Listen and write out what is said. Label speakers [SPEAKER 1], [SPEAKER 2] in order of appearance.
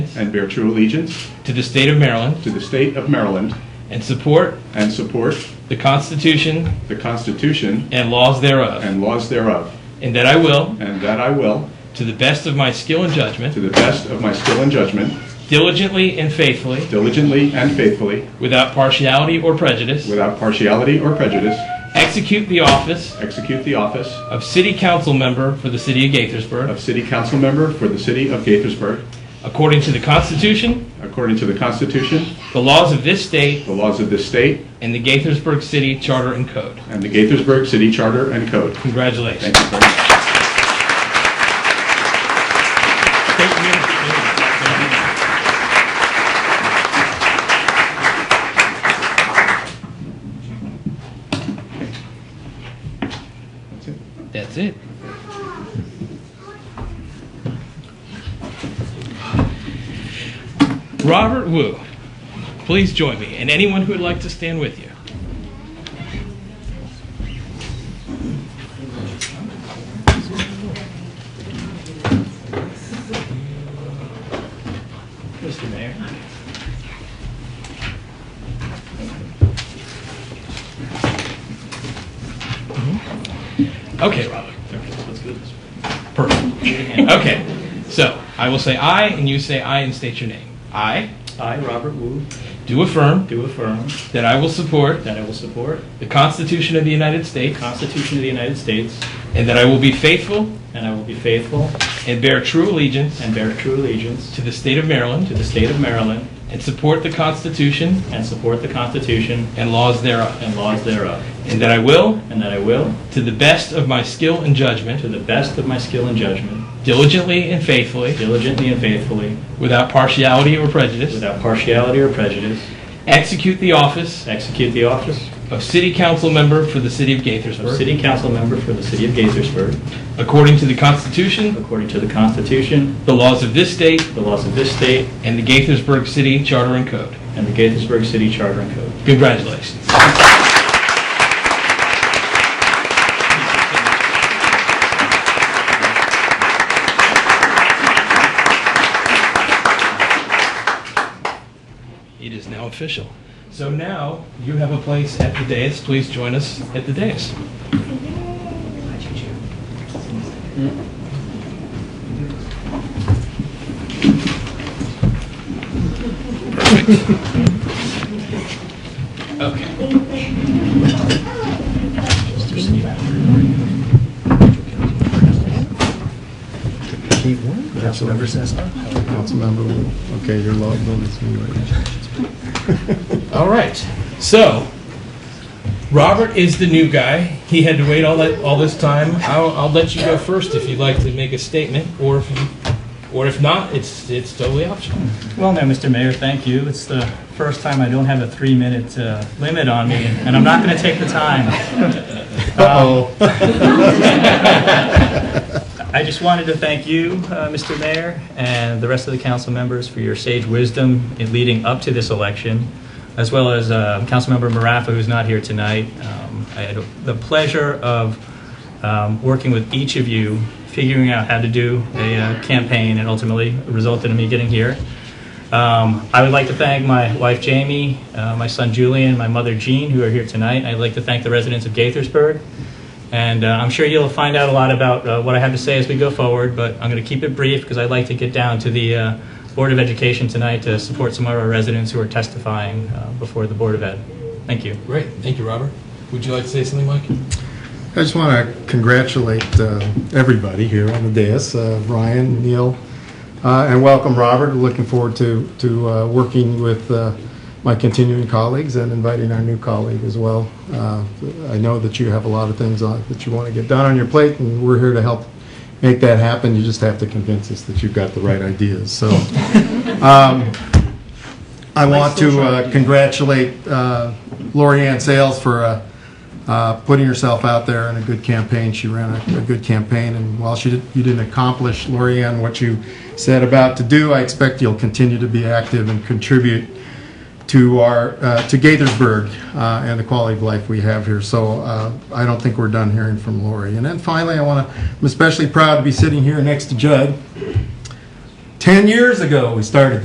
[SPEAKER 1] and bear true allegiance
[SPEAKER 2] to the state of Maryland
[SPEAKER 1] to the state of Maryland
[SPEAKER 2] and support
[SPEAKER 1] and support
[SPEAKER 2] the Constitution
[SPEAKER 1] the Constitution
[SPEAKER 2] and laws thereof,
[SPEAKER 1] and laws thereof,
[SPEAKER 2] and that I will,
[SPEAKER 1] and that I will,
[SPEAKER 2] to the best of my skill and
[SPEAKER 1] to
[SPEAKER 2] judgment,
[SPEAKER 1] the best of my skill and judgment,
[SPEAKER 2] diligently and faithfully,
[SPEAKER 1] diligently and faithfully,
[SPEAKER 2] without partiality or prejudice,
[SPEAKER 1] without partiality or prejudice,
[SPEAKER 2] execute the office
[SPEAKER 1] execute the office
[SPEAKER 2] of City Council Member for the City of Gaithersburg
[SPEAKER 1] of City Council Member for the City of Gaithersburg,
[SPEAKER 2] according to the Constitution,
[SPEAKER 1] according to the Constitution,
[SPEAKER 2] the laws of this state,
[SPEAKER 1] the laws of this state,
[SPEAKER 2] and the Gaithersburg City Charter and Code.
[SPEAKER 1] and the Gaithersburg City Charter and Code.
[SPEAKER 2] Congratulations.
[SPEAKER 1] Thank you very much.
[SPEAKER 2] That's it. Robert Wu, please join me, and anyone who would like to stand with you. Mr. Mayor. Mm-hmm. Okay, Robert. Perfect. Okay, so I will say "I" and you say "I" and state your name. I
[SPEAKER 3] I, Robert Wu,
[SPEAKER 2] do affirm
[SPEAKER 3] do affirm
[SPEAKER 2] that I will support
[SPEAKER 3] that I will support
[SPEAKER 2] the Constitution of the United
[SPEAKER 3] the
[SPEAKER 2] States
[SPEAKER 3] Constitution of the United States,
[SPEAKER 2] and that I will be faithful
[SPEAKER 3] and I will be faithful
[SPEAKER 2] and bear true allegiance
[SPEAKER 3] and bear true allegiance
[SPEAKER 2] to the state of
[SPEAKER 3] to
[SPEAKER 2] Maryland
[SPEAKER 3] the state of Maryland,
[SPEAKER 2] and support the Constitution
[SPEAKER 3] and support the Constitution
[SPEAKER 2] and laws thereof,
[SPEAKER 3] and laws thereof,
[SPEAKER 2] and that I will,
[SPEAKER 3] and that I will,
[SPEAKER 2] to the best of my skill and
[SPEAKER 3] to
[SPEAKER 2] judgment,
[SPEAKER 3] the best of my skill and judgment,
[SPEAKER 2] diligently and faithfully,
[SPEAKER 3] diligently and faithfully,
[SPEAKER 2] without partiality or prejudice,
[SPEAKER 3] without partiality or prejudice,
[SPEAKER 2] execute the office
[SPEAKER 3] execute the office
[SPEAKER 2] of City Council Member for the City of
[SPEAKER 3] of
[SPEAKER 2] Gaithersburg
[SPEAKER 3] City Council Member for the City of Gaithersburg,
[SPEAKER 2] according to the Constitution,
[SPEAKER 3] according to the Constitution,
[SPEAKER 2] the laws of this state,
[SPEAKER 3] the laws of this state,
[SPEAKER 2] and the Gaithersburg City Charter and Code.
[SPEAKER 3] and the Gaithersburg City Charter and Code.
[SPEAKER 2] Congratulations. It is now official. So now you have a place at the dais. Please join us at the dais. Okay.
[SPEAKER 4] Councilmember Cessna. Councilmember Wu. Okay, your law building's anyway.
[SPEAKER 2] All right. So, Robert is the new guy. He had to wait all that all this time. I'll, I'll let you go first if you'd like to make a statement, or if you, or if not, it's it's totally optional.
[SPEAKER 3] Well, no, Mr. Mayor, thank you. It's the first time I don't have a three-minute uh, limit on me, and I'm not going to take the time. Uh-oh. Um, I just wanted to thank you, uh, Mr. Mayor, and the rest of the council members for your sage wisdom in leading up to this election, as well as uh, Councilmember Marafa, who's not here tonight. Um, I had the pleasure of um, working with each of you, figuring out how to do a uh, campaign, and ultimately resulted in me getting here. Um, I would like to thank my wife Jamie, uh, my son Julian, my mother Jean, who are here tonight. I'd like to thank the residents of Gaithersburg. And uh, I'm sure you'll find out a lot about uh, what I have to say as we go forward, but I'm going to keep it brief because I'd like to get down to the uh, Board of Education tonight to support some of our residents who are testifying uh, before the Board of Ed. Thank you.
[SPEAKER 2] Great. Thank you, Robert. Would you like to say something, Mike?
[SPEAKER 4] I just want to congratulate uh, everybody here on the dais, uh, Ryan, Neil, uh, and welcome Robert. Looking forward to, to uh, working with uh, my continuing colleagues and inviting our new colleague as well. Uh, I know that you have a lot of things on, that you want to get done on your plate, and we're here to help make that happen. You just have to convince us that you've got the right ideas, so. um, I want to uh, congratulate uh, Lori Ann Sales for uh, uh, putting herself out there in a good campaign. She ran a, a good campaign, and while she did, you didn't accomplish, Lori Ann, what you said about to do, I expect you'll continue to be active and contribute to our uh, to Gaithersburg uh, and the quality of life we have here. So uh, I don't think we're done hearing from Lori. And then finally, I want to. I'm especially proud to be sitting here next to Judd. Ten years ago, we started